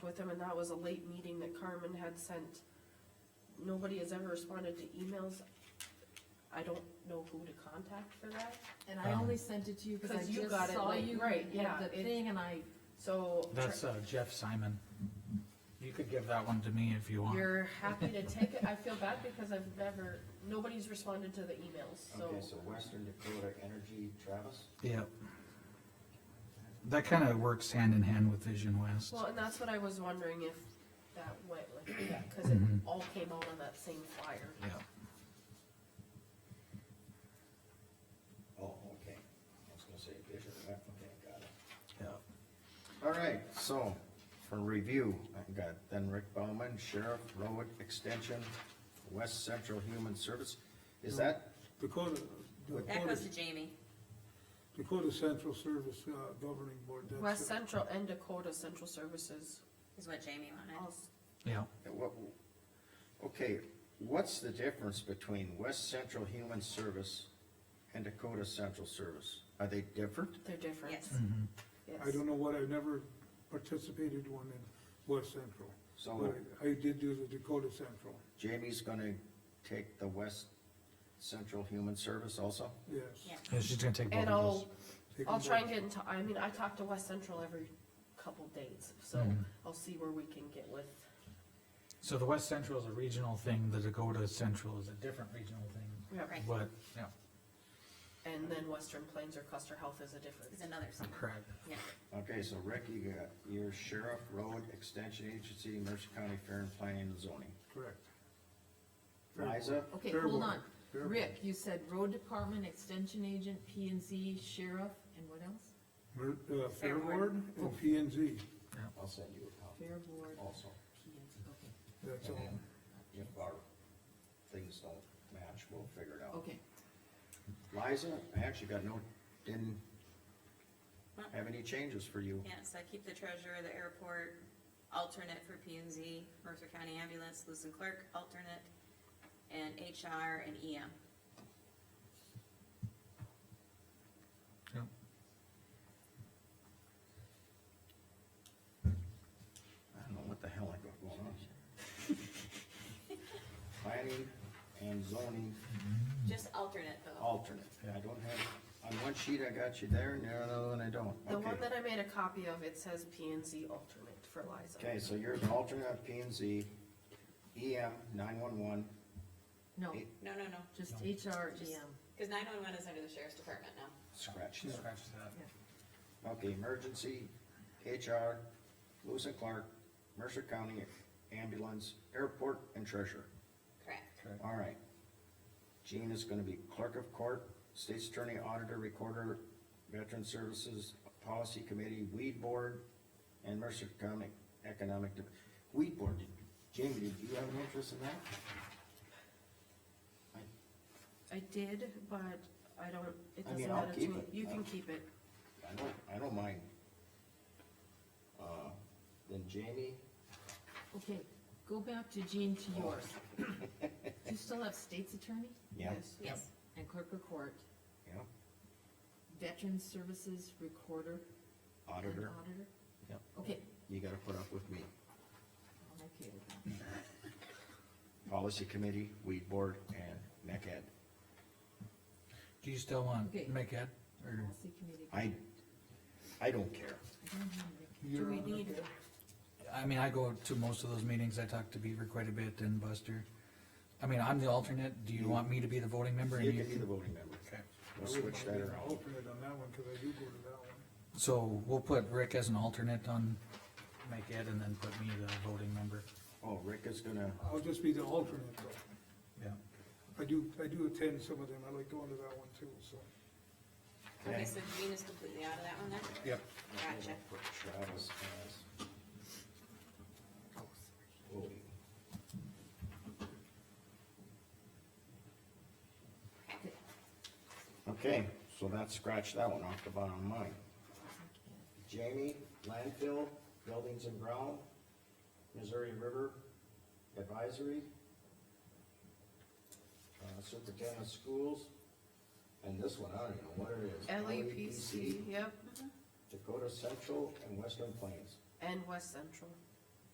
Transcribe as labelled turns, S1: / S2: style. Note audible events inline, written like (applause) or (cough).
S1: with him, and that was a late meeting that Carmen had sent. Nobody has ever responded to emails. I don't know who to contact for that,
S2: And I only sent it to you because I
S1: 'Cause you
S2: just
S1: got it
S2: saw
S1: late,
S2: you
S1: right, yeah,
S2: had the
S1: it-
S2: thing and I,
S1: so.
S3: That's uh, Jeff Simon. You could give that one to me if you want.
S1: You're happy to take
S4: (laughs)
S1: it. I feel bad because I've never, nobody's responded to the emails, so.
S4: Okay, so Western Dakota Energy, Travis?
S3: Yep. That kind of works hand in hand with Vision West.
S1: Well, and that's what I was wondering if that went like that, cause it
S4: Mm-hmm.
S3: Mhm.
S1: all came out on that same flyer.
S3: Yep.
S4: Oh, okay. I was gonna say Vision, yeah, okay, got it.
S3: Yep.
S4: All right, so for review, I've got then Rick Bauman, Sheriff, Road Extension, West Central Human Service. Is that,
S5: Dakota,
S6: That
S5: Dakota,
S6: goes to Jamie.
S5: Dakota Central Service uh, Governing Board. that's
S1: West
S5: it.
S1: Central and Dakota Central Services.
S6: Is what Jamie wanted.
S1: I'll-
S3: Yep.
S4: what, okay, what's the difference between West Central Human Service and Dakota Central Service? Are they different?
S1: They're different.
S6: Yes.
S4: Mm-hmm.
S3: Mhm.
S1: Yes.
S5: I don't know what, I've never participated one in West Central,
S4: So
S5: but I I did do the Dakota Central,
S4: Jamie's gonna take the West Central Human Service also?
S5: yes.
S6: Yeah.
S3: Yeah, she's gonna take both
S1: And
S3: of
S1: I'll,
S3: those.
S5: Take
S1: I'll
S5: them
S1: try
S5: both.
S1: and get into, I mean, I talk to West Central every couple days, so
S4: Hmm.
S3: Mhm.
S1: I'll see where we can get with.
S3: So the West Central is a regional thing, the Dakota Central is a different regional thing,
S6: Right.
S3: but, yeah,
S1: And then Western Plains or Custer Health is a different.
S6: Is another something.
S3: correct.
S6: Yeah.
S4: Okay, so Rick, you got your sheriff, road, extension agency, Mercer County Fair and Planning and Zoning.
S5: Correct. Fair board.
S4: Liza,
S2: okay,
S5: Fair
S2: hold
S5: board.
S2: on.
S5: Fair
S2: Rick, you said road department, extension agent, P and Z, sheriff, and what else?
S5: board. Mer- uh, Fair
S6: Fair board.
S5: Board and P and Z,
S4: I'll send you a copy
S2: Fair board,
S4: also.
S2: P and Z, okay,
S5: that's
S4: And
S5: all.
S4: then if our things don't match, we'll figure it out.
S2: okay.
S4: Liza, I actually got no, didn't have any changes for you.
S6: Yeah, so I keep the treasurer, the airport, alternate for P and Z, Mercer County Ambulance, Lewis and Clark, alternate, and HR and E EM.
S3: Yep.
S4: I don't know what the hell I got going on. Planning and zoning
S6: Just alternate though.
S4: alternate. I don't have, on one sheet I got you there and the other one I don't.
S1: The
S4: Okay.
S1: one that I made a copy of, it says P and Z alternate for Liza.
S4: Okay, so you're an alternate on P and Z, E EM nine-one-one,
S2: No,
S4: Eight.
S6: No, no, no,
S2: just HR,
S6: Just-
S2: EM.
S6: cause nine-one-one is under the sheriff's department now.
S4: scratch
S3: She
S4: that.
S3: scratched that.
S4: Okay, emergency, HR, Lewis and Clark, Mercer County Ambulance, Airport, and Treasurer.
S6: Correct.
S4: All right. Jean is gonna be clerk of court, state's attorney, auditor, recorder, veteran services, policy committee, weed board, and Mercer County Economic, De- weed board. Jamie, do you have an interest in that?
S1: I did, but I don't, it
S4: I
S1: doesn't
S4: mean, I'll
S1: matter to
S4: keep
S1: me.
S4: it.
S1: You can keep it.
S4: I don't, I don't mind. Uh, then Jamie,
S2: Okay, go back to Jean to yours. Do you still have state's attorney
S4: yeah,
S6: Yes,
S2: and clerk of court,
S4: yeah,
S2: veteran services recorder and
S4: auditor,
S2: auditor?
S4: Yep.
S2: Okay,
S4: you gotta put up with me.
S2: I'm okay with that.
S4: Policy committee, weed board, and NECAD.
S3: Do you still want
S2: Okay.
S3: MCAD, or,
S2: Policy committee.
S4: I, I don't care.
S2: I don't have it.
S1: Do we need,
S3: I mean, I go to most of those meetings, I talk to Beaver quite a bit and Buster. I mean, I'm the alternate, do you want me to be the voting member? and
S4: You can be the voting member.
S3: Okay.
S4: We'll
S5: I wouldn't
S4: switch
S5: mind
S4: that
S5: being an
S4: around.
S5: Alternate on that one, cause I do go to that one.
S3: So we'll put Rick as an alternate on MCAD and then put me the voting member.
S4: Oh, Rick is gonna,
S5: I'll just be the alternate though.
S3: Yeah.
S5: I do, I do attend some of them, I like going to that one too, so.
S6: okay,
S4: Okay.
S6: so Jean is completely out of that one then?
S3: Yep.
S6: Gotcha.
S4: put Travis as voting. Okay, so that scratched that one off the bottom of mine. Jamie, landfill, buildings and ground, Missouri River Advisory, uh, superintendent of schools, and this one, I don't even know what it is.
S1: E
S4: E
S1: LEPC, yep,
S4: Dakota Central and Western Plains.
S1: and West Central.